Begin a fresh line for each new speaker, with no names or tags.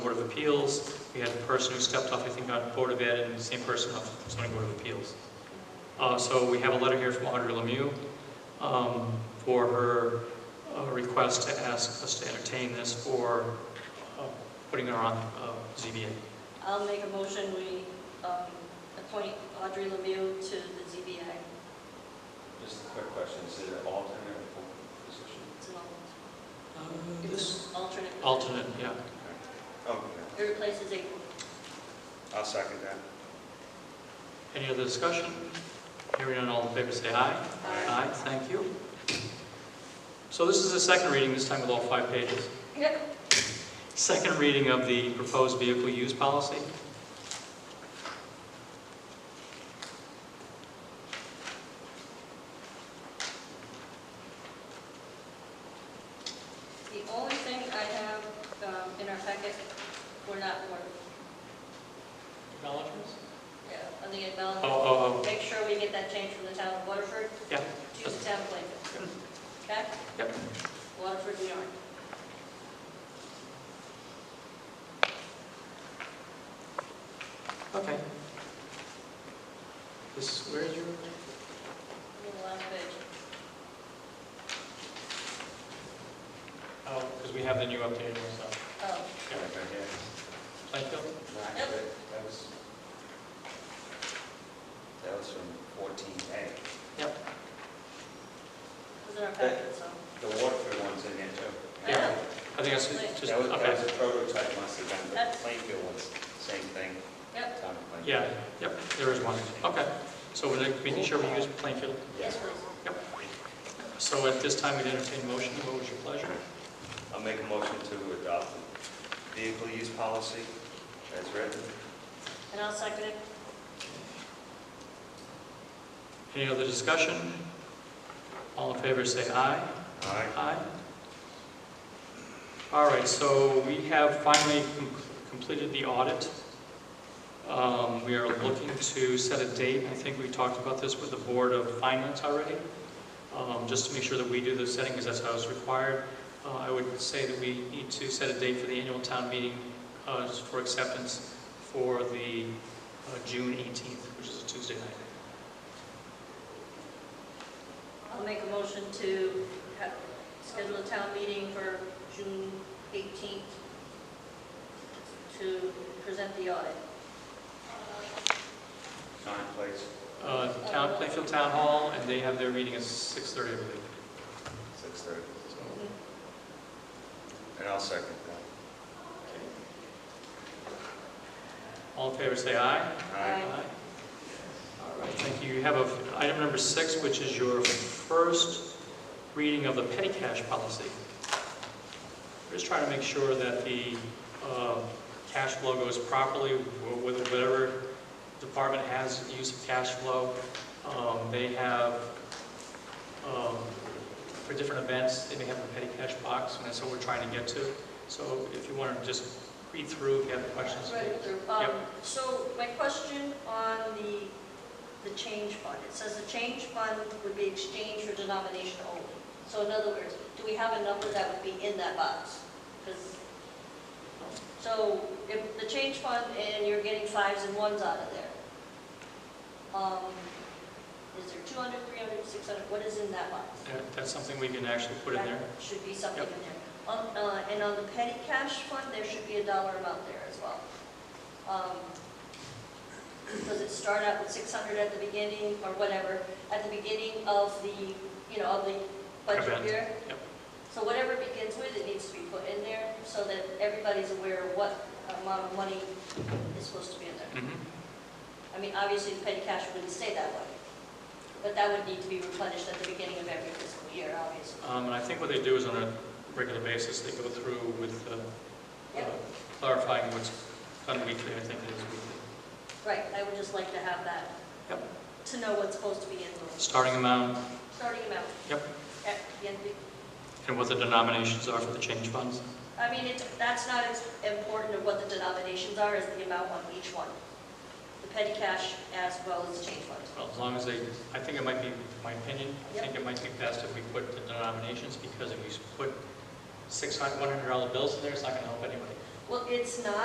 Appeals. We had a person who stepped off, I think, on Board of Ed, and the same person off zoning Board of Appeals. Uh, So we have a letter here from Audrey Lemieux um, for her uh, request to ask us to entertain this for uh, putting her on uh, ZBA.
I'll make a motion, we um, appoint Audrey Lemieux to the ZBI.
Just a quick question, is it an alternate or full position?
It's an al-
This-
it's an alternate.
Alternate, yeah.
Okay,
It replaces April.
Oh, I'll second that.
Any other discussion? Hearing none, all in favor, say aye.
Aye.
Aye, thank you. So this is the second reading, this time with all five pages.
Yep.
Second reading of the proposed vehicle use policy.
The only thing I have um, in our packet, we're not warned.
Acknowledgements?
Yeah, on the
Oh,
acknowledgement.
oh,
Make sure we get that change from the town of Waterford
oh, yeah,
to the town of Plainville. Okay?
oh, Yep.
Waterford, New York.
okay. This, where is your,
On the last page.
oh, because we have the new updated one, so.
Oh,
Okay, yeah.
Plainfield?
Right,
Yep.
but That was, that was from fourteen A.
it was in our packet, so.
The Waterford one's in there too.
I know.
I think that's just,
That was, that was
okay.
a prototype, must have been, but
That's-
Plainfield one's same thing,
Yep,
town of Plainfield.
Yeah, yep, there is one, okay. So we're making sure we use Plainfield.
yes,
Yeah.
please.
So at this time, we'd entertain a motion, what was your pleasure?
I'll make a motion to adopt the vehicle use policy as written.
And I'll second it.
Any other discussion? All in favor, say aye.
Aye.
Aye. All right, so we have finally com- completed the audit. Um, We are looking to set a date, I think we talked about this with the Board of Finance already, um, just to make sure that we do the setting, because that's how it's required. Uh, I would say that we need to set a date for the annual town meeting uh, for acceptance for the uh, June 18th, which is a Tuesday night.
I'll make a motion to ha- schedule a town meeting for June 18th to present the audit.
Sign, please.
Uh, Town, Plainfield Town Hall, and they have their meeting at 6:30, I believe.
Six thirty. And I'll second
All in favor, say aye.
that.
Aye.
All right, thank you. You have a- item number six, which is your first reading of the petty cash policy. We're just trying to make sure that the uh, cash flow goes properly with whatever department has use of cash flow. Um, They have, um, for different events, they may have a petty cash box, and that's what we're trying to get to. So if you want to just read through, if you have questions.
Right,
please.
through. Um, So my question on the, the change fund, it says the change fund would be exchanged for denomination only. So in other words, do we have a number that would be in that box? 'Cause- so if the change fund and you're getting fives and ones out of there, um, is there 200, 300, 600, what is in that box?
That- That's something we can actually put in there.
That Should be something in
Yep.
there. On, uh, and on the petty cash fund, there should be a dollar amount there as well. Um, Does it start out with six hundred at the beginning, or whatever, at the beginning of the, you know, of the budget
Event,
year?
yep.
So whatever it begins with, it needs to be put in there, so that everybody's aware of what amount of money is supposed to be in there.
Mhm.
I mean, obviously, the petty cash wouldn't stay that way, but that would need to be replenished at the beginning of every fiscal year, obviously.
Um, And I think what they do is on a regular basis, they go through with uh,
Yep.
uh, clarifying what's done weekly, I think it is weekly.
Right, I would just like to have that.
Yep.
To know what's supposed to be in the
Starting amount
starting amount.
Yep.
At the end,
and what the denominations are for the change funds.
I mean, it, that's not as important of what the denominations are as the amount on each one. The petty cash as well as change fund.
Well, As long as they, I think it might be, my opinion, I think it might be best if we put the denominations, because if we put six hundred, one hundred dollar bills in there, it's not going to help anybody.
Well, it's not